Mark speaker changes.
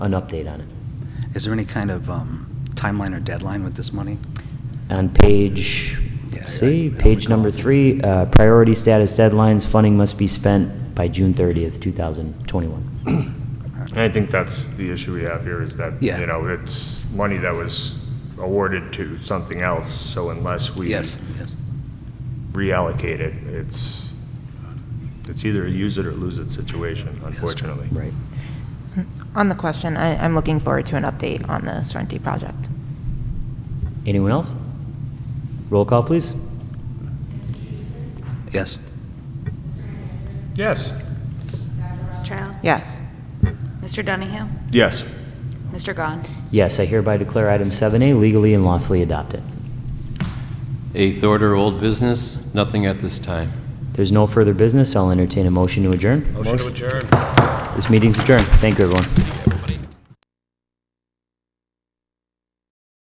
Speaker 1: an update on it.
Speaker 2: Is there any kind of um, timeline or deadline with this money?
Speaker 1: On page,
Speaker 2: Yeah, I- I
Speaker 1: see,
Speaker 2: don't
Speaker 1: page number
Speaker 2: recall.
Speaker 1: three, uh, priority status deadlines, funding must be spent by June 30th, 2021.
Speaker 3: I think that's the issue we have here, is that,
Speaker 2: Yeah.
Speaker 3: you know, it's money that was awarded to something else, so unless we
Speaker 2: Yes, yes.
Speaker 3: reallocate it, it's, it's either a use it or lose it situation, unfortunately.
Speaker 1: Right.
Speaker 4: On the question, I, I'm looking forward to an update on the Sorrento project.
Speaker 1: Anyone else? Roll call, please.
Speaker 2: Yes.
Speaker 3: Yes.
Speaker 5: Child?
Speaker 4: Yes.
Speaker 5: Mr. Donahue?
Speaker 3: Yes.
Speaker 5: Mr. Gahn?
Speaker 1: Yes, I hereby declare item 7A legally and lawfully adopted.
Speaker 6: Eighth order, old business, nothing at this time.
Speaker 1: There's no further business, I'll entertain a motion to adjourn.
Speaker 3: Motion to adjourn.
Speaker 1: This meeting's adjourned. Thank you, everyone.